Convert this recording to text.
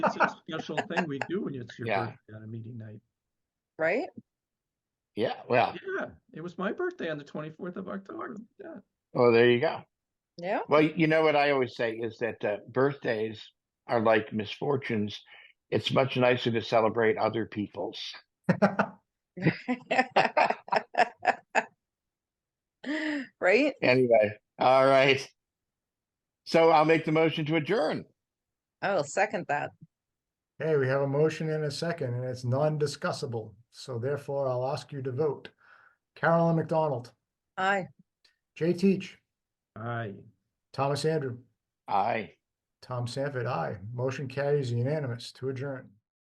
It's a special thing we do when it's your Yeah. birthday on a meeting night. right? Yeah, well, Yeah, it was my birthday on the 24th of October. Yeah. well, there you go. Yeah. Well, you know what I always say is that uh, birthdays are like misfortunes. It's much nicer to celebrate other people's. right? Anyway, all right. So I'll make the motion to adjourn. I'll Oh, second that. Okay, we have a motion and a second, and it's non-discussable, so therefore I'll ask you to vote. Carolyn McDonald, Aye. Jay Teach, Aye. Thomas Andrew, Aye. Tom Sanford, aye. Motion carries unanimous to adjourn.